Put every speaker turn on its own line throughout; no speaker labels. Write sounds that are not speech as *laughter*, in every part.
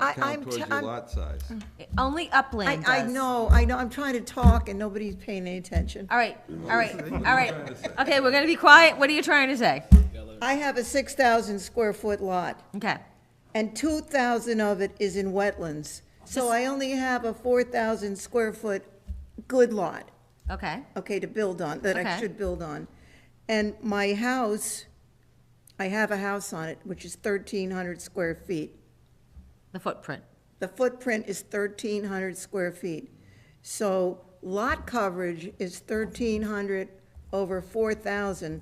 I-
count
I'm
towards
t-
your
I'm-
lot size.
Only
I,
upland
I
does.
know, I know, I'm trying to talk and nobody's paying any attention.
All right, all right, all right.
What are you trying to say?
Okay, we're gonna be quiet. What are you trying to say?
I have a six thousand square foot lot,
Okay,
and two thousand of it is in wetlands. So
Just-
I only have a four thousand square foot good lot,
okay,
okay, to build on, that I
Okay.
should build on. And my house, I have a house on it, which is thirteen hundred square feet.
the footprint.
The footprint is thirteen hundred square feet. So lot coverage is thirteen hundred over four thousand,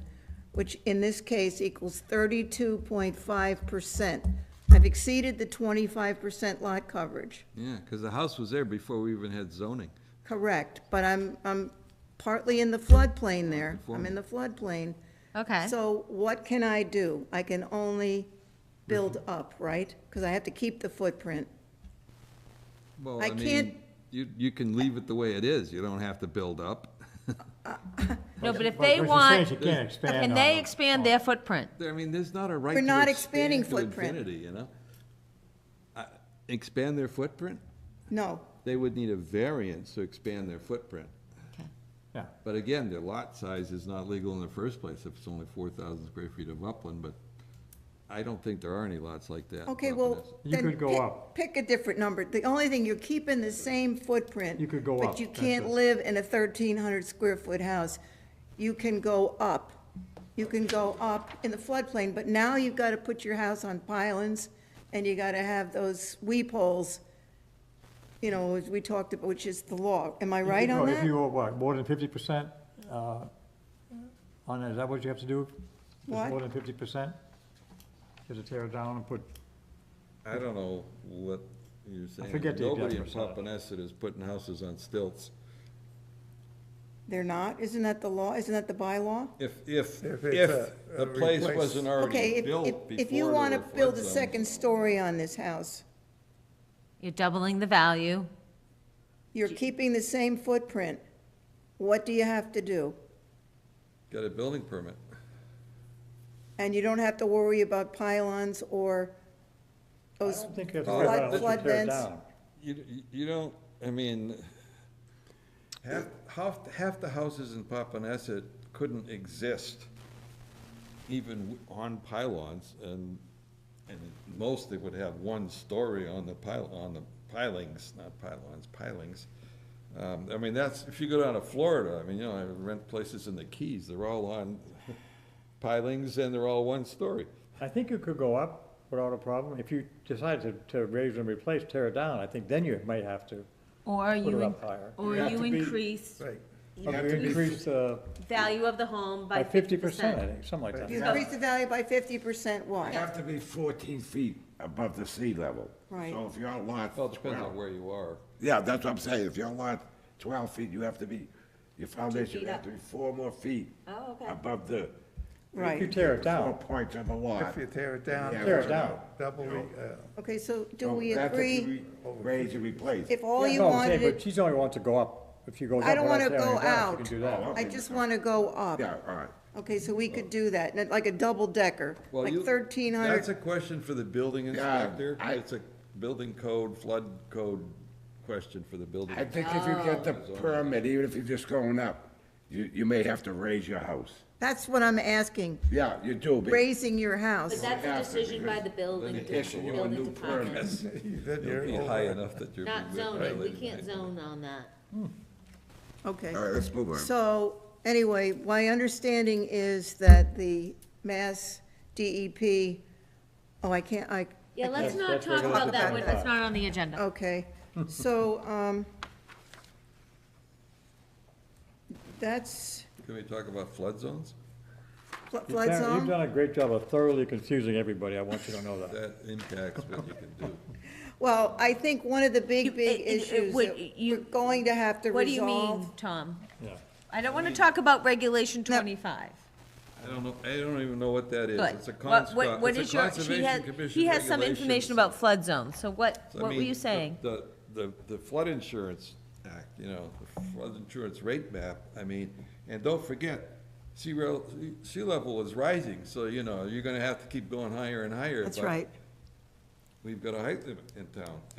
which in this case equals thirty-two point five percent. I've exceeded the twenty-five percent lot coverage,
Yeah, because the house was there before we even had zoning.
correct, but I'm, I'm partly in the floodplain there. I'm in the floodplain.
Okay,
So what can I do? I can only build up, right? Because I have to keep the footprint.
Well,
I
I mean,
can't-
you, you can leave it the way it is. You don't have to build up. *laughs*
no, but if
But
they
what she's
want,
saying, she can't expand
can
on
they
it.
expand their footprint?
I mean, there's not a right
We're
to
not expanding
expand to
footprint.
infinity, you know? I- Expand their footprint?
No,
They would need a variance to expand their footprint.
Okay.
Yeah,
But again, their lot size is not legal in the first place if it's only four thousand square feet of upland, but I don't think there are any lots like that.
Okay,
up in
well,
this-
You
then
could go
pick-
up.
Pick a different number. The only thing, you're keeping the same footprint.
You could go
But
up,
you
that's
can't
it.
live in a thirteen hundred square foot house. You can go up. You can go up in the floodplain, but now you've got to put your house on pylons, and you got to have those weep holes, you know, as we talked about, which is the law. Am I
You
right
could go-
on
If you
that?
were, what, more than fifty percent, uh, on, is that what you have to do? Is it
What?
More than fifty percent? Just to tear it down and put,
I don't know what you're saying.
forget the exact
Nobody in
percentage.
Pompanesett is putting houses on stilts.
They're not? Isn't that the law? Isn't that the bylaw?
If, if,
If it's
if
a-
the
a
place
replace-
wasn't
Okay,
already
if, if,
built before
if you
there
want to
were flood
build a
zones.
second story on this house,
You're doubling the value.
You're keeping the same footprint. What do you have to do?
Got a building permit.
And you don't have to worry about pylons or
I
those,
don't think you have to
Oh,
tear it
flood-
down, just
flood
tear it
vents.
down.
You, you don't, I mean, half, half, half the houses in Papaneset couldn't exist even on pylons, and, and most they would have one story on the pile, on the pilings, not pylons, pilings. Um, I mean, that's, if you go down to Florida, I mean, you know, I rent places in the Keys, they're all on pilings and they're all one story.
I think you could go up without a problem. If you decide to, to raise and replace, tear it down, I think then you might have to.
Or
Put it
you,
up higher.
or
You have
you
to be-
increase
Right.
Or you increase the,
value of the home by
by
fifty
fifty percent, I
percent.
think, something like
if you
that.
increase the value by fifty percent,
You
why?
have to be 14 feet above the sea level.
Right.
So if your lot's
Well, it depends on
12,
where you are.
yeah, that's what I'm saying, if your lot 12 feet, you have to be, your foundation
feet
you have
up.
to be four more feet
Oh, okay.
above the
If you
Right.
tear it
four
down,
points of the lot.
If you tear it down,
Yeah,
tear it
so-
down.
double, the, uh,
Okay, so do
so
we
that's if
agree,
you re- Raise and replace.
if all
Yeah,
you
no, I'm saying, But
wanted,
she's only wants to go up. If she goes
I
up
don't
without
wanna
tearing
go
it down, she
out.
can do that.
I just want to go up.
Oh, Yeah, all right.
Okay, so we could do that, and like a double decker,
Well,
like
you-
thirteen
That's a
hundred.
question for the building
Yeah,
inspector.
I-
It's a building code, flood code question for the building.
I think if you get the
Oh.
permit, even if you're just going up, you, you may have to raise your house.
That's what I'm asking,
Yeah, you do, but
raising your house.
But that's a decision by the building,
issue you a
building
new
department,
permit.
then
It'll
you're
be
over.
high enough that you're.
not zoning. We
violating
can't
it.
zone on that.
Okay.
All right, let's move on.
So, anyway, my understanding is that the Mass DEP, oh, I can't, I,
Yeah, let's not
that's where
talk
we're
about
gonna
that
put
one.
that.
It's not on the agenda.
*laughs*
okay, so, um, that's
Can we talk about flood zones?
flo-
You've
flood
done- You've
zone?
done a great job of thoroughly confusing everybody, I want you to know that.
That impacts what you can do.
Well, I think one of the
You-
big, big
it- it- it
issues
would-
that
you-
we're going to have to resolve.
What do you mean, Tom?
Yeah.
I don't want to talk about regulation
No.
twenty-five.
I don't know, I don't even know what that is.
Good.
It's a cons,
What-
it's
what- What
a
is your? She
conservation
has.
commission.
He has some information
regulations.
about flood zones, so what,
I
what were
mean,
you
the-
saying?
The, the, the flood insurance act, you know, the flood insurance rate map, I mean, and don't forget, sea rel, sea level is rising, so, you know, you're gonna have to keep going higher and higher.
That's
but
right.
we've got a height limit in town,